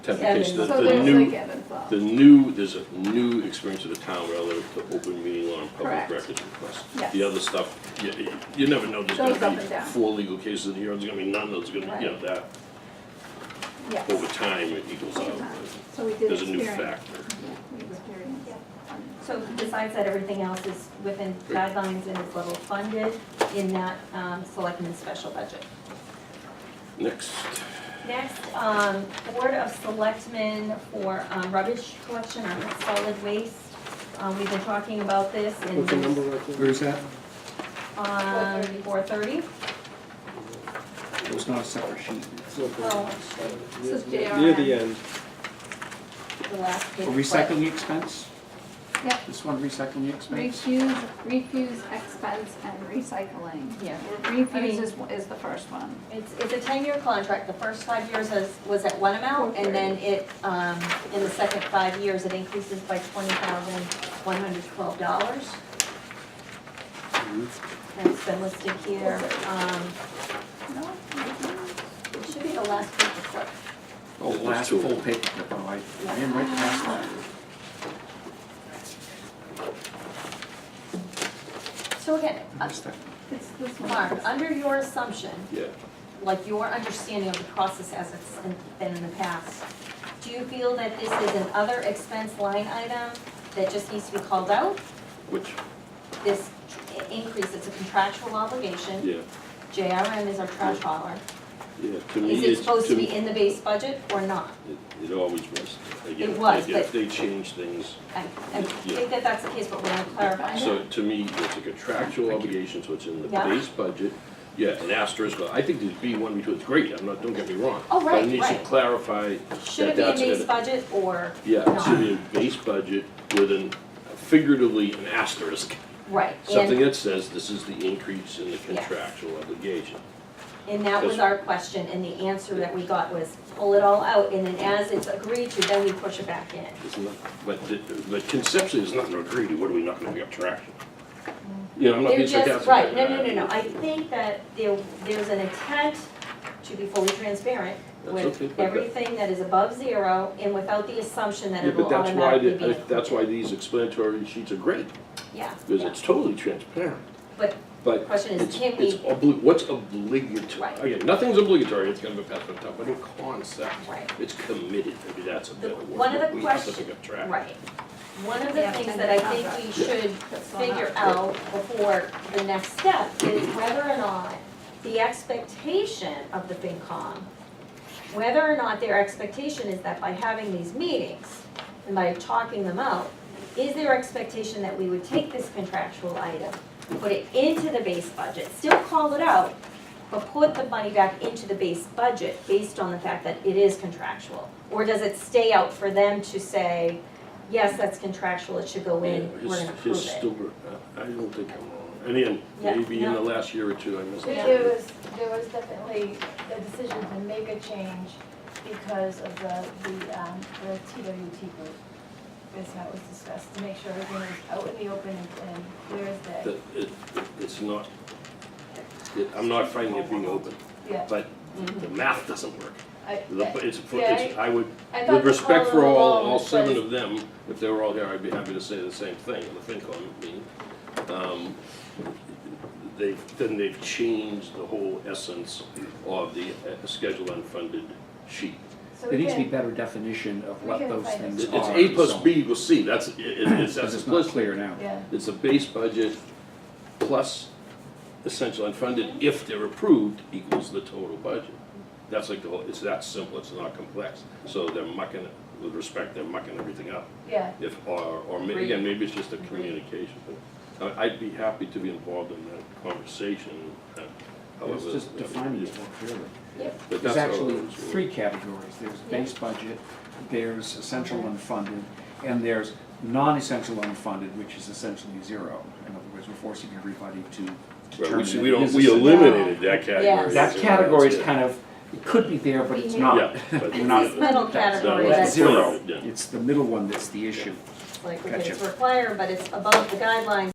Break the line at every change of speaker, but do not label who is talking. Temptation, the,
Seven.
So
the
there's like
new,
ebb and flow.
the new, there's a new experience of the town relative to open meeting law and public
Correct.
records requests.
Yes.
The other stuff, you, you- you never know, there's
Goes
gonna
up and
be
down.
four legal cases here, there's gonna be none, there's gonna be, you know, that,
Yes.
over time, it equals out.
So we did
There's a new
experience.
factor.
Yeah, we experienced.
So besides that, everything else is within guidelines and is level funded in that um, selectmen's special budget.
Next,
Next, um, Board of Selectmen for um, rubbish collection on solid waste. Um, We've been talking about this in.
What's the number right there?
Where's that?
Um, four thirty.
It's not a separate sheet.
It's not bad.
Oh, actually,
This is
Near- Near the
JRM.
end,
the last
For
page.
recycling expense?
Yep.
This one, recycling expense?
Refuse, refuse expense and recycling.
Yeah. I
Refuse
mean-
is, is the first one.
It's, it's a ten-year contract, the first five years was, was at one amount, and then it, um, in the second five years, it increases by twenty thousand, one hundred twelve dollars. That's been listed here, um,
No?
it should be the last page of flip.
Oh,
There's
last
two of
full
them.
paper clip, oh, I I didn't write the last one.
Uh,
So again, uh,
What's that?
It's this
Mark,
one.
under your assumption,
yeah,
like your understanding of the process as it's in- been in the past, do you feel that this is an other expense line item that just needs to be called out?
which,
This tr- increase, it's a contractual obligation.
yeah,
JRM is our trash hauler.
yeah, to me,
Is it
it's,
supposed
to
to be
me,
in the base budget or not?
it it always was. Again,
It was,
again,
but-
They change things,
I, I
Yeah.
think that that's the case, but we're gonna clarify that.
So to me, it's a contractual obligation, so it's in the
Yeah.
base budget. Yeah, an asterisk, but I think there's B one, B two, it's great, I'm not, don't get me wrong.
Oh,
But
right,
it needs to
right.
clarify
Should
that
it be in
that's
base
gonna.
budget or
Yeah, it should
not?
be a base budget with an, figuratively, an asterisk.
Right,
Something
and,
that says this is the increase in the
Yes.
contractual obligation.
and that was our question, and the answer that we got was pull it all out, and then as it's agreed to, then we push it back in.
It's not, but, th- but conceptually, there's nothing to agree to, what are we not gonna be up to action? You know, I'm not
They're
being sarcastic.
just, right, no,
but
no,
I-
no, no, I think that there, there's an intent to be fully transparent
That's okay,
with
but that-
everything that is above zero and without the assumption that
Yeah,
it'll
but that's why,
automatically be.
the- that's why these explanatory sheets are great,
Yeah,
because
yeah,
it's totally transparent.
but the
But
question is,
It's,
can
it's
we,
obli, what's obligatory?
Right.
Again, nothing's obligatory, it's kind of a pass on top, but in concept,
right,
it's committed, maybe that's a
The-
better word.
one of the
We have to
question-
pick up track.
right. One of the
Yeah,
things
and
that I
the
think we
contract.
should
That's one
figure
up.
out before the next step is whether or not the expectation of the FinCom, whether or not their expectation is that by having these meetings and by talking them out, is their expectation that we would take this contractual item, put it into the base budget, still call it out, but put the money back into the base budget based on the fact that it is contractual? Or does it stay out for them to say, yes, that's contractual, it should go in,
Yeah,
we're
his-
gonna
his
prove it?
stupor- I I don't think I'm wrong. And again,
Yeah,
maybe in
no.
the last year or two, I missed.
But There was, there was definitely a decision to make a change because of the, the, um, the TWT group. That's how it was discussed, to make sure everything was out in the open and and clear as day.
that it, it's not, it- I'm not finding it being open,
Yeah,
but
Mm-hmm.
the math doesn't work.
I,
The-
I-
It's,
yeah,
it's, I would,
I thought
with
the
respect for
column
all,
alone
all seven
was-
of them, if they were all here, I'd be happy to say the same thing, in the FinCom meeting. Um, They've, then they've changed the whole essence of the uh, scheduled unfunded sheet.
So
There
we
needs to be
can,
better definition of
we
what
can
those
find it.
things
It's
are.
A plus
so-
B equals C, that's, it- it- it's
Because
that's
it's not
explicit.
clear now.
yeah,
It's a base budget plus essential unfunded, if they're approved, equals the total budget. That's like the whole, it's that simple, it's not complex. So they're mucking, it with respect, they're mucking everything up.
yeah,
If, or, or maybe, again, maybe it's just a communication, but I- I'd be happy to be involved in that conversation. uh,
It's
however-
just defining it more clearly.
But
There's
that's how it
actually
was.
three categories. There's base budget, there's essential unfunded, and there's non-essential unfunded, which is essentially zero. In other words, we're forcing everybody to
Right, we-
determine.
We
it
don't,
is
we
essential.
eliminated that category.
That category is
Yeah.
kind of, it could be there, but it's not.
Yeah, but-
We're
It's this
not.
middle
That's not
category
right.
It's
that's
Zero.
zero.
Yeah.
It's the middle one that's the issue.
like, okay, it's
Gotcha.
required, but it's above the guidelines